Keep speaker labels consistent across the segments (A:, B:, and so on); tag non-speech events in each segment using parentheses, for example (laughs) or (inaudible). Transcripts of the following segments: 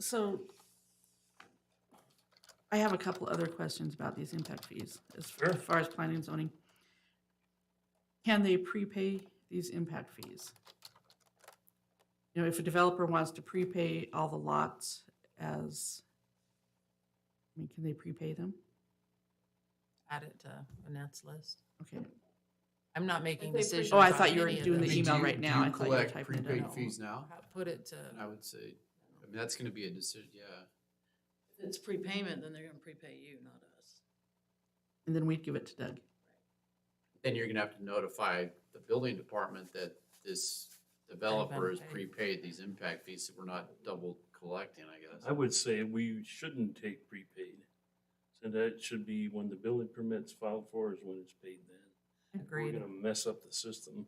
A: So I have a couple other questions about these impact fees as far,
B: Sure.
A: as far as planning and zoning. Can they prepay these impact fees? You know, if a developer wants to prepay all the lots as, I mean, can they prepay them?
C: add it to Annette's list.
A: Okay,
C: I'm not making
D: they pre-
C: decisions.
A: Oh, I
C: on
A: thought you were
C: any of
A: doing the
C: them.
A: email
E: do you-
A: right
E: do
A: now.
E: you
A: I thought you were
E: collect
A: typing it
E: prepaid
A: out.
E: fees now?
C: How- Put it to,
E: And I would say, I mean, that's gonna be a decision, yeah.
D: If it's prepayment, then they're gonna prepay you, not us.
A: and then we'd give it to Doug.
E: Then you're gonna have to notify the building department that this developer has
C: Unpaid.
E: prepaid these impact fees, so we're not double collecting, I guess.
B: I would say we shouldn't take prepaid. So that should be when the building permit's filed for is when it's paid then. We're
C: agreed.
B: gonna mess up the system.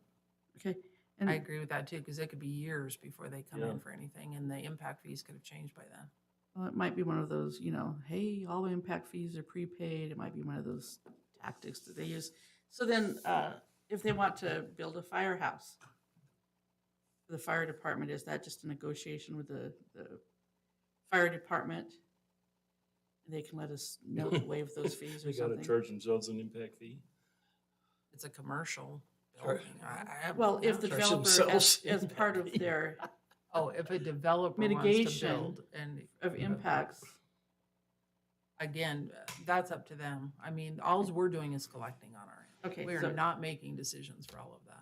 A: Okay.
C: I
A: And,
C: agree with that too, because it could be years before they come
B: Yeah.
C: in for anything and the impact fees could have changed by then.
A: well, it might be one of those, you know, hey, all impact fees are prepaid. It might be one of those tactics that they use. So then, uh, if they want to build a firehouse, for the fire department, is that just a negotiation with the, the fire department? They can let us know to waive those fees or
B: They gotta
A: something?
B: charge themselves an impact fee.
C: It's a commercial
E: Sure.
C: building. I, I.
A: Well, if the
E: Charge
A: developer, as,
E: themselves
A: as part of
E: impact fee.
A: their,
C: Oh, if a developer wants to
A: Mitigation
C: build and.
A: of impacts,
C: Again, that's up to them. I mean, alls we're doing is collecting on our end.
A: okay,
C: We are
A: so,
C: not making decisions for all of that.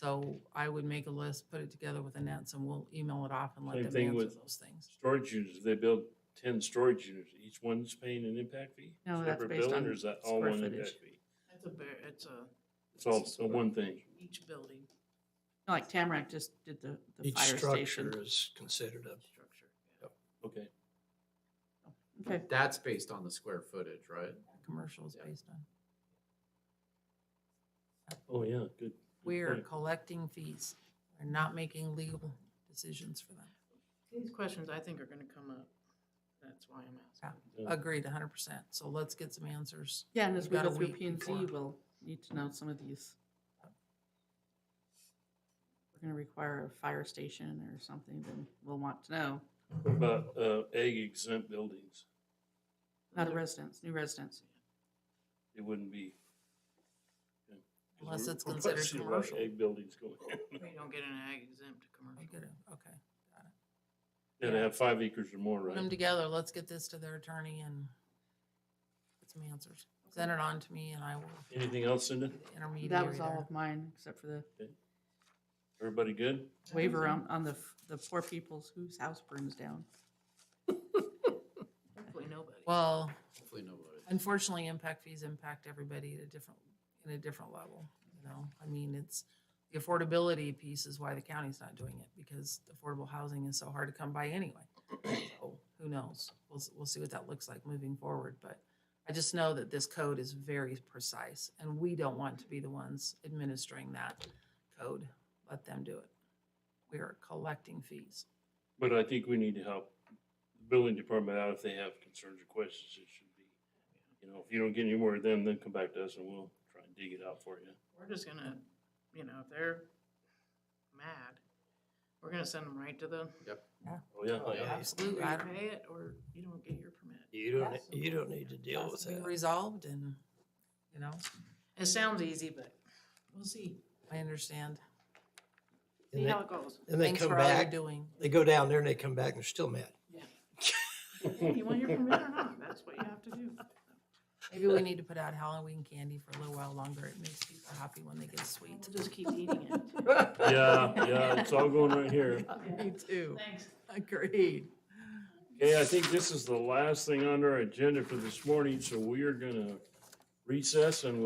C: So I would make a list, put it together with Annette's and we'll email it off and let
B: Same
C: them
B: thing
C: answer
B: with-
C: those things.
B: Storage units, they build ten storage units, each one's paying an impact fee?
A: No, that's
B: Separate
A: based
B: building,
A: on
B: or is that all
A: square
B: one
A: footage.
B: impact fee?
D: That's a bear, it's a,
B: It's all, so one thing.
D: each building
A: like Tamarack just did the, the
F: Each
A: fire station.
F: structure is considered a,
D: structure.
B: Okay.
A: Okay,
E: That's based on the square footage, right?
C: Commercial is
E: Yeah.
C: based on.
B: Oh, yeah, good- good.
C: We are
B: point.
C: collecting fees. We're not making legal decisions for them.
D: These questions I think are gonna come up. That's why I'm asking.
B: Yeah.
C: Agreed, hundred percent. So let's get some answers.
A: yeah, and as
C: We've
A: we
C: got
A: go
C: a
A: through
C: week
A: P and Z,
C: before.
A: we'll need to know some of these. We're gonna require a fire station or something, then we'll want to know,
B: What About, uh, egg exempt buildings,
A: not a residence, new residence.
B: it wouldn't be. yeah. 'Cause
C: Unless
B: we're-
C: it's
B: we're
C: considered
B: seeing a lot of
C: commercial.
B: Egg buildings going.
D: We don't get an ag exempt to
C: I
D: commercial.
C: get it. Okay.
B: Yeah, they have five acres or more,
C: Put them
B: right?
C: together. Let's get this to their attorney and get some answers. Send it on to me and I will be
B: Anything else, Cindy?
C: the intermediary
A: That was all
C: there.
A: of mine, except for the
B: Everybody good?
A: waiver on, on the, f- the poor people's whose house burns down.
D: Hopefully nobody.
C: Well,
E: Hopefully nobody.
C: unfortunately, impact fees impact everybody at a different, in a different level, you know? I mean, it's, the affordability piece is why the county's not doing it, because affordable housing is so hard to come by anyway. So Who knows? We'll, s- we'll see what that looks like moving forward, but I just know that this code is very precise, and we don't want to be the ones administering that code. Let them do it. We are collecting fees.
B: But I think we need to help the building department out if they have concerns or questions. It should be, you know, if you don't get any more of them, then come back to us and we'll try and dig it out for you.
D: We're just gonna, you know, if they're mad, we're gonna send them right to the,
B: Oh, yeah.
F: Oh, yeah.
C: Absolutely. I
D: either
C: don't-
D: pay it or you don't get your permit.
F: you don't,
C: That's-
F: you don't need to deal with
C: has to be
F: that.
C: Resolved and, you know,
D: It sounds easy, but we'll see,
C: I understand.
D: see
F: And they,
D: how it goes.
F: and they
C: Thanks
F: come
C: for all you're
F: back,
C: doing.
F: they go down there and they come back and they're still mad.
D: You want your permit or not, that's what you have to do.
C: Maybe we need to put out Halloween candy for a little while longer. It makes people happy when they get sweet.
D: We'll just keep eating it.
B: Yeah, yeah, it's all going right here.
C: (laughs) Me too.
D: Thanks.
C: Agreed.
B: Okay, I think this is the last thing on our agenda for this morning, so we are gonna recess and we'll